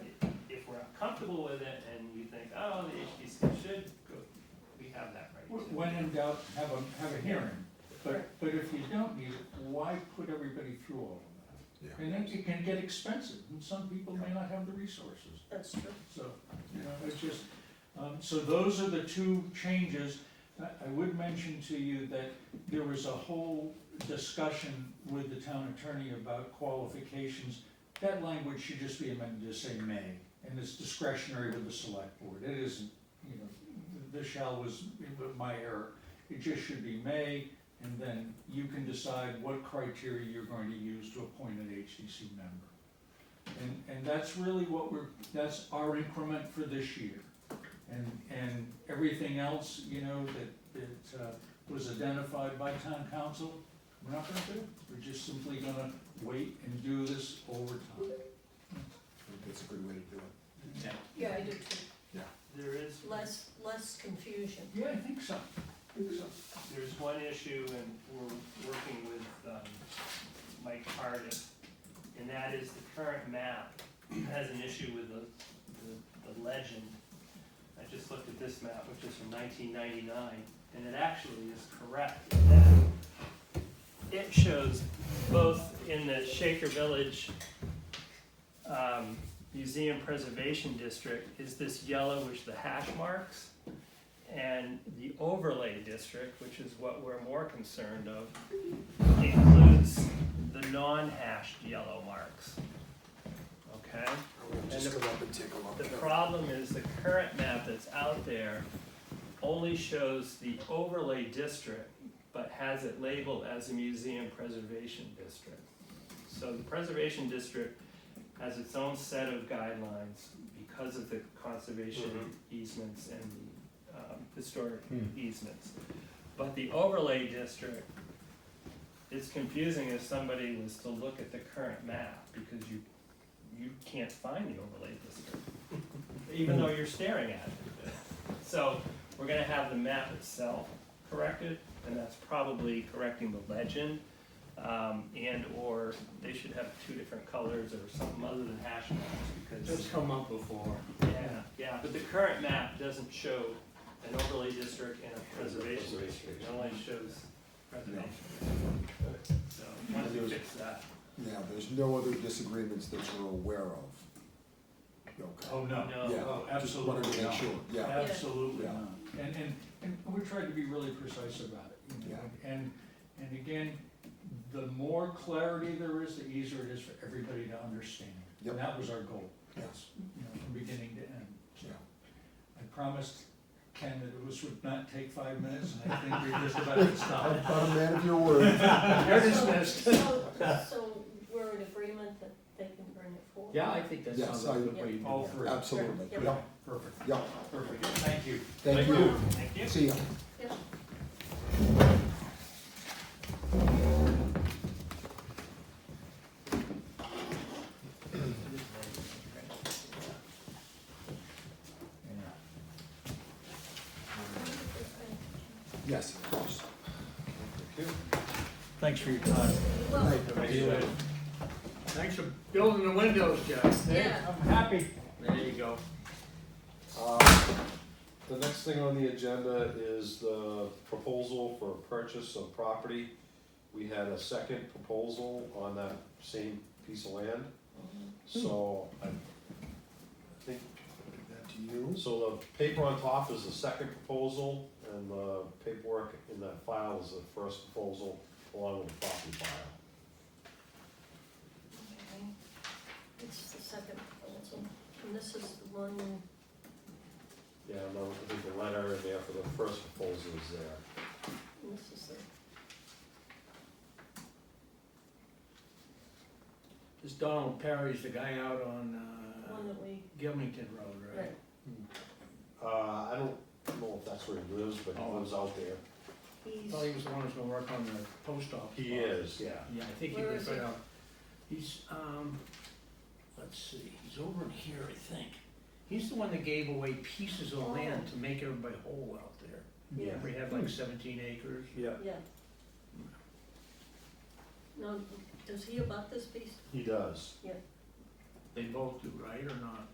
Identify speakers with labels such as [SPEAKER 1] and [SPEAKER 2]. [SPEAKER 1] comfortable with it and you think, oh, the HDC should go, we have that right. to-
[SPEAKER 2] When in doubt, have a, have a hearing, but, but if you don't need it, why put everybody through all of that?
[SPEAKER 3] Yeah.
[SPEAKER 2] And then it can get expensive, and some people may not have the resources,
[SPEAKER 4] That's true.
[SPEAKER 2] so, you know, it's just, um, so those are the two changes. I, I would mention to you that there was a whole discussion with the town attorney about qualifications. That language should just be amended to say may, and it's discretionary with the select board, it isn't, you know, the- the shall was my error. It just should be may, and then you can decide what criteria you're going to use to appoint an HDC member. And, and that's really what we're, that's our increment for this year. And, and everything else, you know, that, that, uh, was identified by town council, we're not gonna do. it. We're just simply gonna wait and do this over time.
[SPEAKER 3] That's a good way to do it.
[SPEAKER 1] Yeah,
[SPEAKER 4] Yeah, I do too.
[SPEAKER 1] There is,
[SPEAKER 4] Less, less confusion.
[SPEAKER 2] Yeah, I think so. I think so.
[SPEAKER 1] there's one issue and we're working with, um, Mike Cardiff, and that is the current map has an issue with the, the, the legend. I just looked at this map, which is from nineteen ninety-nine, and it actually is correct in that it shows both in the Shaker Village, um, Museum Preservation District is this yellowish, the hash marks. And the overlay district, which is what we're more concerned of, includes the non-hashed yellow marks. Okay?
[SPEAKER 3] I'm gonna
[SPEAKER 1] And
[SPEAKER 3] just
[SPEAKER 1] the-
[SPEAKER 3] go up and take a look.
[SPEAKER 1] The problem is the current map that's out there only shows the overlay district, but has it labeled as a museum preservation district. So the preservation district has its own set of guidelines because of the conservation easements and the um, historic easements. But the overlay district, it's confusing if somebody was to look at the current map, because you, you can't find the overlay district even
[SPEAKER 5] Hmm.
[SPEAKER 1] though you're staring at it. So we're gonna have the map itself corrected, and that's probably correcting the legend. Um, and or they should have two different colors or something other than hash marks because,
[SPEAKER 5] Just come up before.
[SPEAKER 1] yeah, yeah, but the current map doesn't show an overlay district and a preservation district, it only shows preservation. So, once we fix that,
[SPEAKER 3] Now, there's no other disagreements that you're aware of. Okay.
[SPEAKER 2] Oh, no.
[SPEAKER 3] Yeah,
[SPEAKER 1] no,
[SPEAKER 2] Oh,
[SPEAKER 3] Just
[SPEAKER 2] absolutely
[SPEAKER 3] wanted to make
[SPEAKER 2] not.
[SPEAKER 3] sure, yeah.
[SPEAKER 2] Absolutely
[SPEAKER 3] Yeah.
[SPEAKER 2] not. And, and, and we tried to be really precise about it. you know, And, and again, the more clarity there is, the easier it is for everybody to understand.
[SPEAKER 3] Yep.
[SPEAKER 2] And that was our goal,
[SPEAKER 3] Yes,
[SPEAKER 2] you know, from beginning to end. So
[SPEAKER 3] yeah.
[SPEAKER 2] I promised Ken that it was, would not take five minutes, and I think we just about to stop.
[SPEAKER 3] I'm I'm a man of your word.
[SPEAKER 2] You're dismissed.
[SPEAKER 4] So, so- so we're in agreement that they can bring it forward?
[SPEAKER 5] Yeah, I think that
[SPEAKER 3] Yes,
[SPEAKER 5] sounds like a
[SPEAKER 3] I-
[SPEAKER 5] good way to do
[SPEAKER 2] All
[SPEAKER 5] that.
[SPEAKER 2] three.
[SPEAKER 3] Absolutely,
[SPEAKER 4] Yeah.
[SPEAKER 3] yeah,
[SPEAKER 2] Perfect,
[SPEAKER 3] yeah.
[SPEAKER 2] perfect. Thank you.
[SPEAKER 3] Thank you.
[SPEAKER 1] thank you.
[SPEAKER 3] See ya.
[SPEAKER 4] Yeah.
[SPEAKER 3] Yes, of course.
[SPEAKER 2] Thanks for your time.
[SPEAKER 4] Well,
[SPEAKER 5] Thanks for building the windows, Jeff.
[SPEAKER 4] yeah.
[SPEAKER 2] I'm happy.
[SPEAKER 5] There you go.
[SPEAKER 6] Uh, The next thing on the agenda is the proposal for purchase of property. We had a second proposal on that same piece of land,
[SPEAKER 3] Hmm.
[SPEAKER 6] so I I think,
[SPEAKER 3] Give that to you.
[SPEAKER 6] so the paper on top is the second proposal, and the paperwork in that file is the first proposal, along with the property file.
[SPEAKER 4] Okay. It's the second proposal, and this is the one,
[SPEAKER 6] Yeah, and I think the letter in there for the first proposal is there.
[SPEAKER 4] and this is the,
[SPEAKER 5] This Donald Perry's the guy out on, uh,
[SPEAKER 4] one that we,
[SPEAKER 5] Gilmington Road, right?
[SPEAKER 4] right,
[SPEAKER 6] Uh, I don't know if that's where he lives, but he
[SPEAKER 5] Oh.
[SPEAKER 6] lives out there.
[SPEAKER 5] I
[SPEAKER 4] he's,
[SPEAKER 5] thought he was the one who's gonna work on the post office.
[SPEAKER 6] He is, yeah.
[SPEAKER 5] Yeah, I think he
[SPEAKER 4] Where
[SPEAKER 5] was
[SPEAKER 4] is he?
[SPEAKER 5] right out. He's, um, let's see, he's over in here, I think. He's the one that gave away pieces of
[SPEAKER 4] Oh.
[SPEAKER 5] land to make everybody whole out there.
[SPEAKER 4] yeah,
[SPEAKER 5] We have like seventeen acres.
[SPEAKER 6] Yeah,
[SPEAKER 4] yeah. No, does he about this piece?
[SPEAKER 6] he does.
[SPEAKER 5] They both do, right, or not?